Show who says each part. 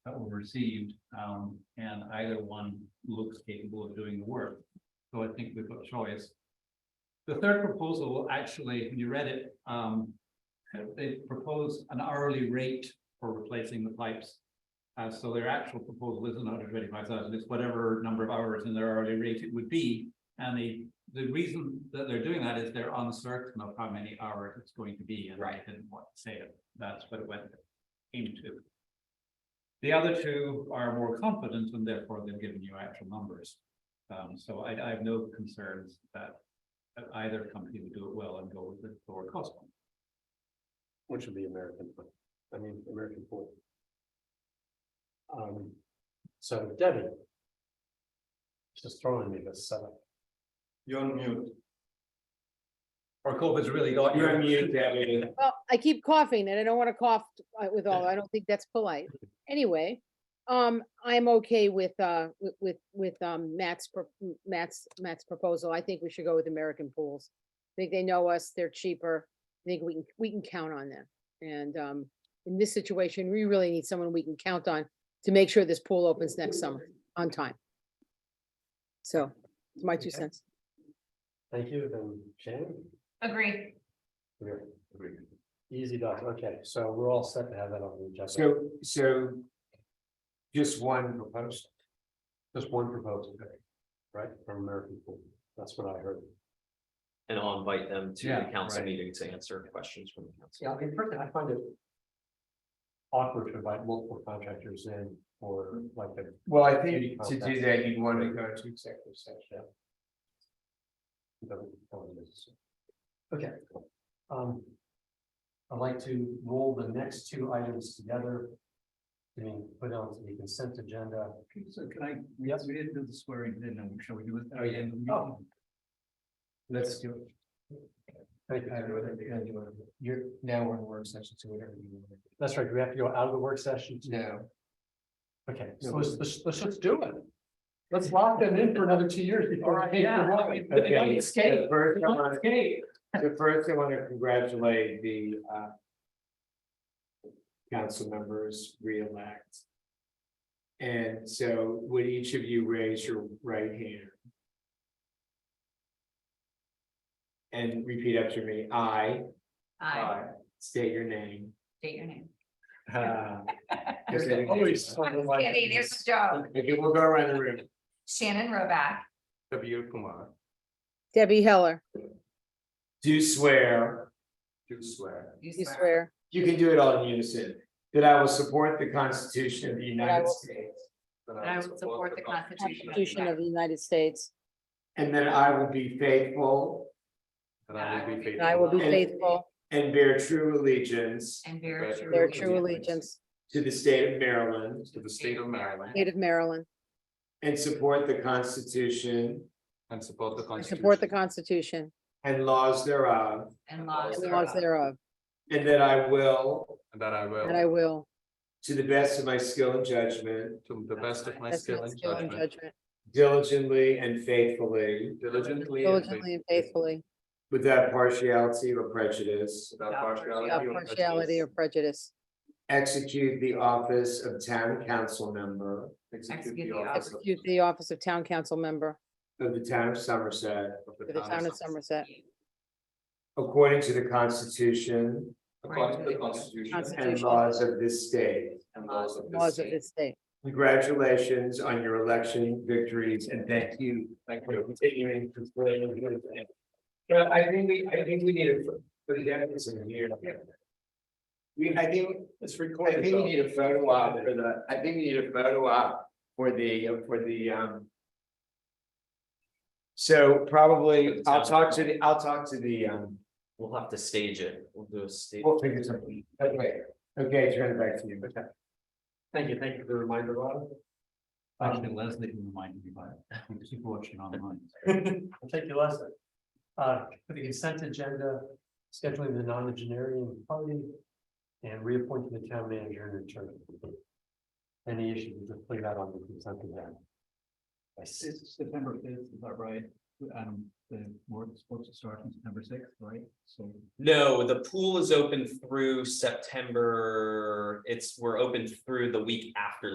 Speaker 1: received, um, and either one looks capable of doing the work. So I think we've got a choice. The third proposal, actually, when you read it, um, they propose an hourly rate for replacing the pipes. Uh, so their actual proposal isn't hundred twenty-five thousand, it's whatever number of hours in their hourly rate it would be. And the, the reason that they're doing that is they're uncertain of how many hours it's going to be, and I
Speaker 2: Right.
Speaker 1: didn't want to say it, that's what it went into. The other two are more confident, and therefore they've given you actual numbers. Um, so I, I have no concerns that that either company would do it well and go with the lower cost one.
Speaker 3: Which would be American, I mean, American pool. Um, so Debbie. Just throwing me this setup. You're on mute.
Speaker 1: Or COVID's really got
Speaker 3: You're on
Speaker 1: you.
Speaker 3: mute, Debbie.
Speaker 4: Well, I keep coughing and I don't want to cough uh, with all, I don't think that's polite. Anyway, um, I'm okay with, uh, with- with, with, um, Matt's, pro- m- Matt's, Matt's proposal. I think we should go with American Pools. I think they know us, they're cheaper. I think we can, we can count on them. And, um, in this situation, we really need someone we can count on to make sure this pool opens next summer on time. So, it's my two
Speaker 3: Okay.
Speaker 4: cents.
Speaker 3: Thank you, then Shannon.
Speaker 5: Agree.
Speaker 3: We're- Easy doc, okay, so we're all set to have that on the agenda.
Speaker 2: So, so. Just one proposal.
Speaker 3: Just one proposal, right, from American pool, that's what I heard.
Speaker 6: And I'll invite them to the
Speaker 1: Yeah,
Speaker 6: council
Speaker 1: right.
Speaker 6: meeting to answer questions from the council.
Speaker 3: Yeah, I mean, personally, I find it. Awkward to invite multiple contractors in for like a
Speaker 2: Well, I think to do that, you'd want to go to executive session.
Speaker 3: Yeah. Doesn't go into this. Okay. Um. I'd like to roll the next two items together. I mean, put on the consent agenda.
Speaker 1: So can I, yes, we didn't do the swearing, didn't we? Shall we do it?
Speaker 3: Oh, yeah.
Speaker 1: Oh,
Speaker 2: Let's do it.
Speaker 3: Thank
Speaker 2: I don't know whether you're gonna
Speaker 3: you.
Speaker 2: do it. You're, now we're in work session, so whatever you want.
Speaker 3: That's right, do we have to go out of the work session. to-
Speaker 2: No,
Speaker 3: Okay, so let's, let's, let's just do it. Let's lock them in for another two years before. they
Speaker 1: yeah.
Speaker 3: arrive.
Speaker 2: okay.
Speaker 1: escape.
Speaker 2: The first, I wanna,
Speaker 1: Okay,
Speaker 2: the first, I wanna congratulate the, uh. Council members re-elect. And so would each of you raise your right hand? And repeat after me, I.
Speaker 5: I
Speaker 2: State your name.
Speaker 5: state your name.
Speaker 2: Uh, just
Speaker 3: There's always someone like-
Speaker 5: Kidding, there's a joke.
Speaker 2: Okay, we'll go around the room.
Speaker 5: Shannon Roback,
Speaker 2: W Kumar.
Speaker 4: Debbie Heller,
Speaker 2: Do swear. Do swear.
Speaker 4: you swear.
Speaker 2: You can do it all in unison. That I will support the Constitution of the United
Speaker 4: will-
Speaker 2: States.
Speaker 5: that I will support the Constitution of the
Speaker 4: Constitution of the
Speaker 5: United
Speaker 4: United States.
Speaker 2: And that I will be faithful.
Speaker 5: That I will be
Speaker 4: And I will be
Speaker 2: And-
Speaker 4: faithful,
Speaker 2: And bear true allegiance.
Speaker 5: And bear true.
Speaker 4: bear true
Speaker 5: allegiance
Speaker 4: allegiance,
Speaker 2: To the state of Maryland.
Speaker 5: to the state of Maryland.
Speaker 4: state of Maryland,
Speaker 2: And support the Constitution
Speaker 1: And support the
Speaker 4: and support the Constitution
Speaker 2: and laws thereof.
Speaker 5: And laws
Speaker 4: and laws
Speaker 5: thereof.
Speaker 4: thereof,
Speaker 2: And that I will,
Speaker 1: And that I will.
Speaker 4: and I will,
Speaker 2: to the best of my skill and judgment,
Speaker 1: To the
Speaker 5: best of
Speaker 1: my
Speaker 4: best of my skill and judgment,
Speaker 2: diligently and faithfully.
Speaker 1: diligently.
Speaker 4: diligently and faithfully,
Speaker 2: Without partiality or prejudice.
Speaker 5: Without partiality
Speaker 4: without partiality or prejudice,
Speaker 2: Execute the office of town council member.
Speaker 5: Execute the office of-
Speaker 4: execute the office of town council member
Speaker 2: Of the town of Somerset.
Speaker 4: for the town of Somerset,
Speaker 2: According to the constitution.
Speaker 5: According to the Constitution.
Speaker 2: And
Speaker 4: Constitution.
Speaker 2: laws of this state.
Speaker 5: And laws of
Speaker 4: laws of this state.
Speaker 2: Congratulations on your election victories and thank you. Thank you. for Continuing to play. But I think we, I think we need it for for the deputies in here. We, I think,
Speaker 3: It's
Speaker 2: I
Speaker 3: recorded.
Speaker 2: think we
Speaker 3: though.
Speaker 2: need a photo op for the, I think we need a photo op for the, for the, um. So probably, I'll talk to the, I'll talk to the, um,
Speaker 6: We'll have to stage it. We'll do a stage.
Speaker 2: we'll figure something, but wait, okay, turn it back to you.
Speaker 3: Thank you, thank you for the reminder, Rob.
Speaker 1: Actually, Leslie reminded me about it. Keep watching online.
Speaker 3: I'll take your lesson. Uh, for the consent agenda, scheduling the non-engineering party. And reappointing the town manager and attorney. Any issues, we just leave that on the consent agenda. I see,
Speaker 1: It's September fifth, is that right? Um, the work is supposed to start on September sixth, right? So.
Speaker 6: No, the pool is open through September. It's, we're open through the week after